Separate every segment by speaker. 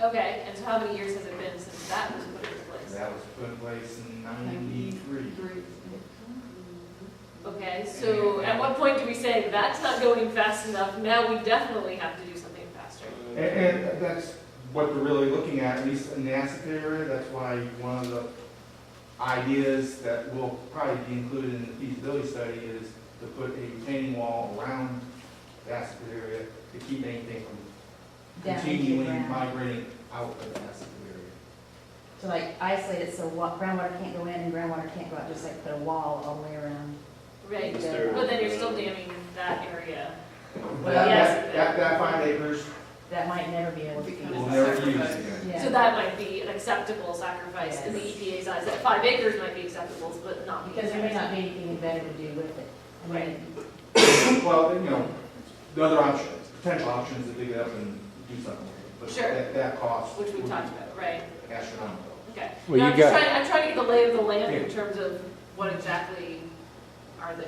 Speaker 1: Okay, and so how many years has it been since that was put into place?
Speaker 2: That was put in place in ninety-three.
Speaker 1: Mm-hmm. Okay, so at what point do we say, that's not going fast enough, now we definitely have to do something faster?
Speaker 2: And, and that's what we're really looking at, at least in the asset area, that's why one of the ideas that will probably be included in the feasibility study is to put a retaining wall around the asset area to keep anything from
Speaker 3: down into
Speaker 2: continuing
Speaker 3: ground.
Speaker 2: migrating out of the asset area.
Speaker 3: To like isolate it so wa- groundwater can't go in and groundwater can't go out, just like put a wall all the way around.
Speaker 1: Right,
Speaker 3: Yeah.
Speaker 1: but then you're still damming that area.
Speaker 2: That,
Speaker 1: yes.
Speaker 2: that, that- that five acres
Speaker 3: That might never be able to. be-
Speaker 2: will never use again.
Speaker 3: Yeah.
Speaker 1: So that might be an acceptable sacrifice in the EPA's eyes, that five acres might be acceptable, but not
Speaker 3: Because
Speaker 1: because
Speaker 3: there may not be anything better to do with it. I mean,
Speaker 2: Well, you know, the other option, potential option is to dig it up and do something with it.
Speaker 1: Sure.
Speaker 2: But that, that cost.
Speaker 1: Which we
Speaker 2: would be
Speaker 1: talked about, right?
Speaker 2: Astronomical.
Speaker 1: Okay.
Speaker 4: Well,
Speaker 1: No,
Speaker 4: you
Speaker 1: I'm just
Speaker 4: got-
Speaker 1: trying, I'm trying to get the lay of the land in
Speaker 2: Yeah.
Speaker 1: terms of what exactly are the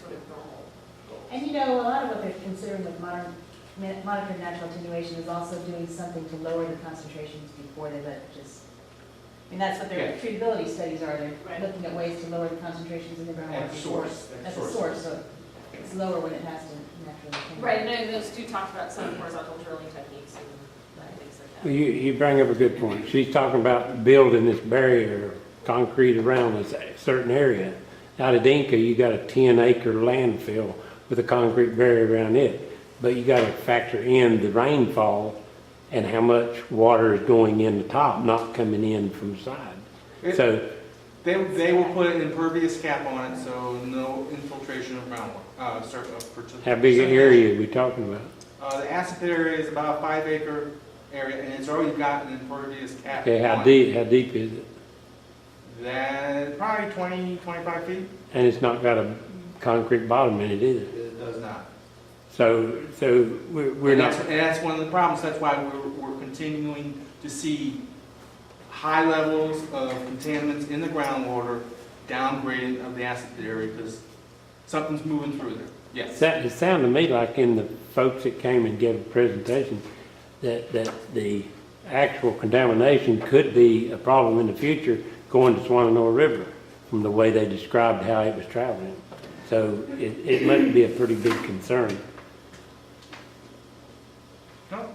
Speaker 1: sort of normal goals.
Speaker 3: And you know, a lot of what they're considering with modern, ma- monitored natural attenuation is also doing something to lower the concentrations before they let it just. I mean, that's what their
Speaker 2: Yeah.
Speaker 3: treatability studies are, they're
Speaker 1: Right.
Speaker 3: looking at ways to lower the concentrations in the groundwater.
Speaker 2: At the
Speaker 3: before-
Speaker 2: source, at the
Speaker 3: At the
Speaker 2: source.
Speaker 3: source, so it's lower when it has to naturally. attenuate.
Speaker 1: Right, and then those two talked about some horizontal drilling techniques and things like
Speaker 4: You,
Speaker 1: that.
Speaker 4: you bring up a good point. She's talking about building this barrier, concrete around this certain area. Out at Inca, you got a ten acre landfill with a concrete barrier around it. But you gotta factor in the rainfall and how much water is going in the top, not coming in from side.
Speaker 2: It-
Speaker 4: So,
Speaker 2: They, they will put an impervious cap on it, so no infiltration of groundwater, uh, sur- of. partic-
Speaker 4: how big an area are we talking about?
Speaker 2: Uh, the asset area is about a five acre area, and it's already got an impervious cap.
Speaker 4: Okay, how
Speaker 2: on it.
Speaker 4: deep, how deep is it?
Speaker 2: Then, probably twenty, twenty-five feet.
Speaker 4: And it's not got a concrete bottom in it either.
Speaker 2: It does not.
Speaker 4: So, so we're, we're
Speaker 2: And
Speaker 4: not.
Speaker 2: that's- And that's one of the problems, that's why we're, we're continuing to see high levels of contaminants in the groundwater, downgrading of the acid area, because something's moving through there. Yes,
Speaker 4: Sa- It sounded to me like in the folks that came and gave a presentation, that, that the actual contamination could be a problem in the future going to Swananoa River, from the way they described how it was traveling. So it, it must be a pretty big concern.
Speaker 2: no,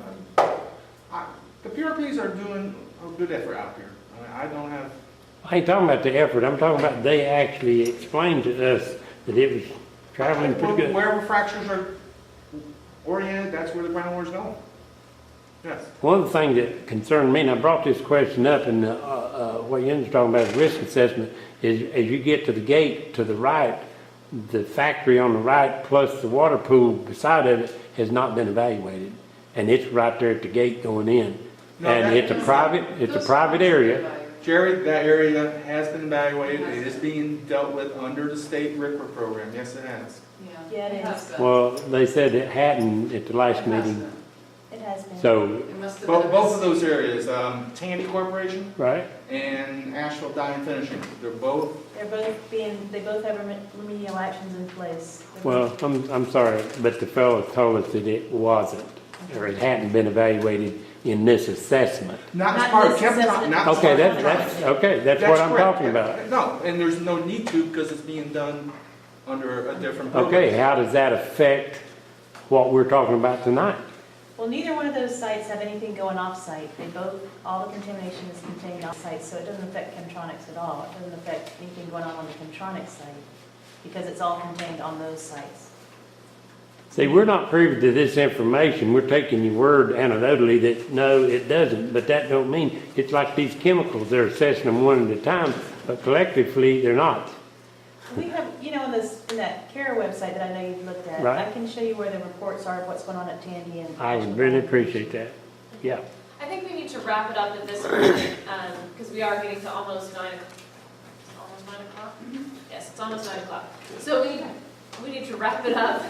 Speaker 2: I, the PRPs are doing a good effort out here. I mean, I don't have,
Speaker 4: I ain't talking about the effort, I'm talking about they actually explained to us that it was traveling pretty
Speaker 2: where-
Speaker 4: good.
Speaker 2: wherever fractures are oriented, that's where the groundwater's going. Yes.
Speaker 4: One of the things that concerned me, and I brought this question up, and uh, uh, what Yen's talking about is risk assessment, is as you get to the gate to the right, the factory on the right plus the water pool beside of it has not been evaluated. And it's right there at the gate going in.
Speaker 2: No, that-
Speaker 4: And it's a private, it's a private area.
Speaker 2: Jerry, that area has been evaluated, it is being dealt with under the state RIPRA program, yes it has.
Speaker 3: Yeah, it is.
Speaker 4: Well, they said it hadn't at the last meeting,
Speaker 3: It has been.
Speaker 4: so,
Speaker 2: Both, both of those areas, um, Tandy Corporation
Speaker 4: right?
Speaker 2: and Asheville Dye and Finishing, they're both,
Speaker 3: They're both being, they both have reme- remedial actions in place.
Speaker 4: Well, I'm, I'm sorry, but the fellow told us that it wasn't, or it hadn't been evaluated in this assessment.
Speaker 2: not
Speaker 3: Not
Speaker 2: as part of
Speaker 3: necessary.
Speaker 2: Kemptown, not as
Speaker 4: Okay,
Speaker 2: part of
Speaker 4: that,
Speaker 2: Kemptown.
Speaker 4: that's, okay, that's what I'm
Speaker 2: correct.
Speaker 4: talking about.
Speaker 2: No, and there's no need to, because it's being done under a different program.
Speaker 4: Okay, how does that affect what we're talking about tonight?
Speaker 3: Well, neither one of those sites have anything going off-site. They both, all the contamination is contained off-site, so it doesn't affect Chemtronics at all. It doesn't affect anything going on on the Chemtronics site, because it's all contained on those sites.
Speaker 4: See, we're not privy to this information, we're taking your word anecdotally that, no, it doesn't, but that don't mean, it's like these chemicals, they're assessing them one at a time, but collectively, they're not.
Speaker 3: We have, you know, in this, in that CARE website that I know you've looked at,
Speaker 4: Right.
Speaker 3: I can show you where the reports are of what's going on at Tandy and.
Speaker 4: I would really appreciate that, yeah.
Speaker 1: I think we need to wrap it up at this point, um, because we are getting to almost nine, o'clock. It's almost nine o'clock?
Speaker 3: Mm-hmm.
Speaker 1: Yes, it's almost nine o'clock. So we, we need to wrap it up.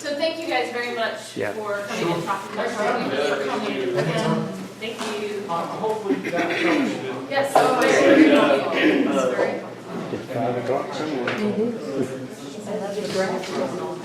Speaker 1: So thank you guys very much
Speaker 4: Yeah.
Speaker 1: for coming and talking to us. Thank you for coming. Yeah. Thank you.
Speaker 3: Uh,
Speaker 2: Hopefully that helps you.
Speaker 1: Yes, so very helpful. It's very helpful.
Speaker 4: It's five o'clock somewhere.
Speaker 3: I love your graphics.